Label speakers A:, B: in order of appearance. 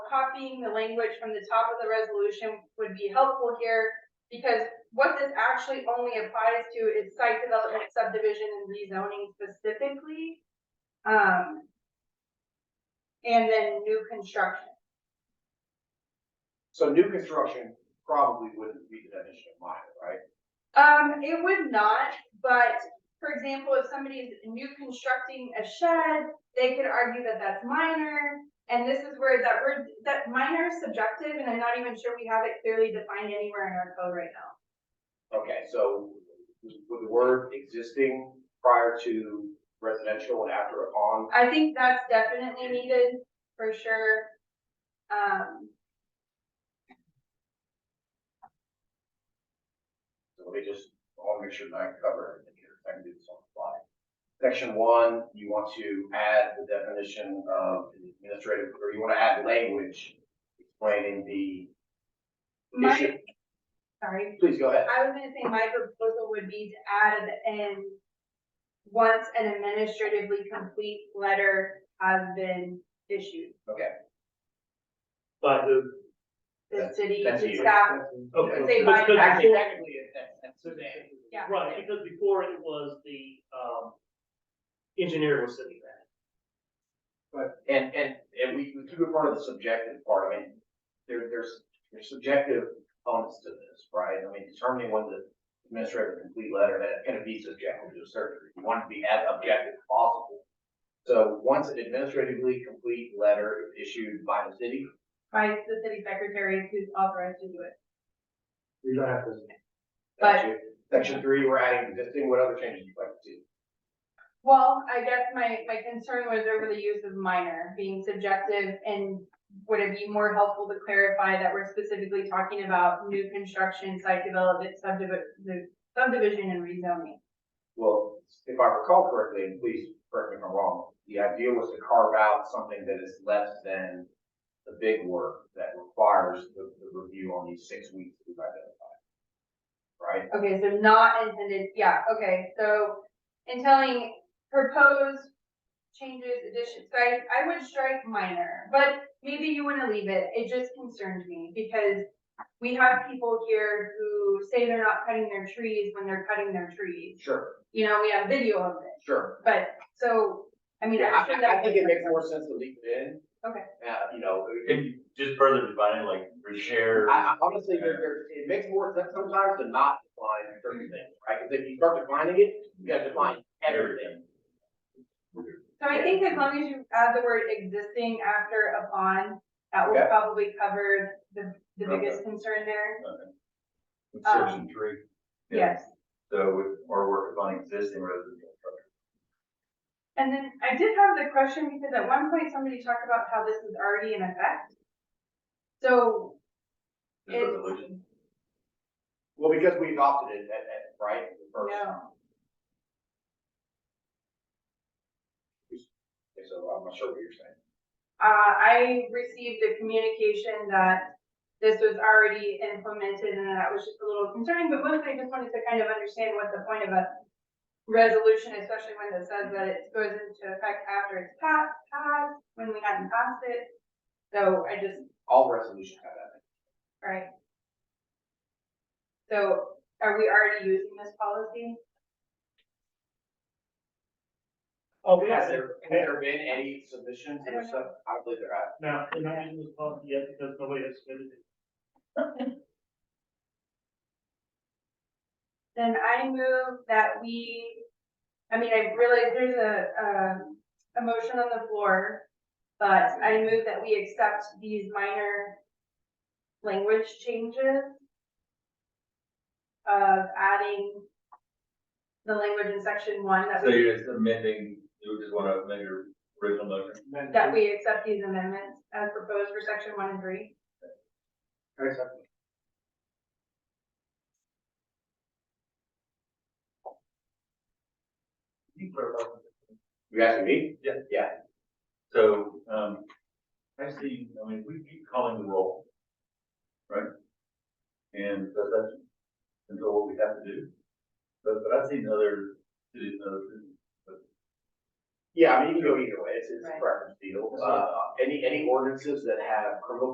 A: copying the language from the top of the resolution would be helpful here because what this actually only applies to is site development subdivision and rezoning specifically. Um. And then new construction.
B: So new construction probably wouldn't be the definition of minor, right?
A: Um, it would not, but for example, if somebody's new constructing a shed, they could argue that that's minor. And this is where that word, that minor is subjective, and I'm not even sure we have it clearly defined anywhere in our code right now.
B: Okay, so with the word existing prior to residential and after upon,
A: I think that's definitely needed for sure. Um,
B: so let me just, I want to make sure that I cover everything here, I can do this on the fly. Section one, you want to add the definition of administrative, or you want to add language explaining the
A: my,
B: issue.
A: sorry,
B: Please go ahead.
A: I was gonna say my proposal would be to add at the end. Once an administratively complete letter has been issued,
B: Okay.
C: By who?
A: the
B: That's-
A: city,
B: that's
A: the
B: you.
A: staff,
C: Okay.
A: Say
C: Because-
A: by
C: because
A: tax.
C: before-
B: Technically, it- that's, that's today.
A: yeah.
C: Right, because before it was the, um, engineer was sitting there.
B: But, and, and, and we, we keep in front of the subjective part, I mean, there, there's, there's subjective components to this, right? I mean, determining when the administrative complete letter, that's gonna be subjective to a certain, degree. you want it to be as objective as possible. So once an administratively complete letter is issued by the city,
A: by the city secretary who's authorized to do it.
C: You don't have to.
A: But-
B: section- section three, we're adding existing, what other changes you'd like to see?
A: Well, I guess my, my concern was over the use of minor being subjective and would it be more helpful to clarify that we're specifically talking about new construction, site development, subdivision, subdivision and rezoning?
B: Well, if I recall correctly, and please correct me if I'm wrong, the idea was to carve out something that is less than the big work that requires the, the review on these six weeks we've identified. Right?
A: Okay, so not intended, yeah, okay, so in telling proposed changes, additions, so I, I would strike minor, but maybe you wanna leave it, it just concerned me, because we have people here who say they're not cutting their trees when they're cutting their trees,
B: Sure,
A: you know, we have video of it,
B: sure.
A: but, so, I mean,
B: Yeah,
A: I'm sure
B: I, I
A: that.
B: think it makes more sense to leave it in.
A: Okay.
B: Uh, you know,
D: Can you just further define it, like repair?
B: I, I honestly, there, there, it makes more sense sometimes to not define certain things, right? Because if you start defining it, you gotta define everything.
A: So I think as long as you add the word existing after upon, that will
B: Okay.
A: probably cover the, the biggest concern there,
D: With
A: um,
D: Section three.
A: yes.
D: So with, or work upon existing residential structure.
A: And then I did have the question because at one point somebody talked about how this is already in effect. So
D: This
A: It's-
D: resolution.
B: Well, because we adopted it at, at, right, the first.
A: No.
B: Okay, So I'm not sure what you're saying.
A: uh, I received a communication that this was already implemented and that was just a little concerning, but mostly I just wanted to kind of understand what the point of a resolution, especially when it says that it goes into effect after it's passed, passed, when we hadn't passed it. So I just
B: All resolutions have that.
A: Right. So are we already using this policy?
C: Oh,
B: Has there, has there been any submissions
A: I
B: or
A: don't
B: stuff? I believe there have.
C: Now, they're not using this policy yet because nobody has submitted it.
A: Then I move that we, I mean, I realize there's a, um, a motion on the floor, but I move that we accept these minor language changes of adding the language in section one that
D: So
A: we,
D: you're just amending, you just want to amend your original motion?
A: that we accept these amendments as proposed for section one and three.
B: Very simple. You asking me?
D: Yeah.
B: Yeah.
D: So, um, I see, I mean, we keep calling the roll, right? And so that's, and so what we have to do. But, but I've seen other cities, and other, cities, but
B: Yeah, I mean, you can go either way, it's, it's a
A: Right.
B: preference deal, uh, any, any ordinances that have criminal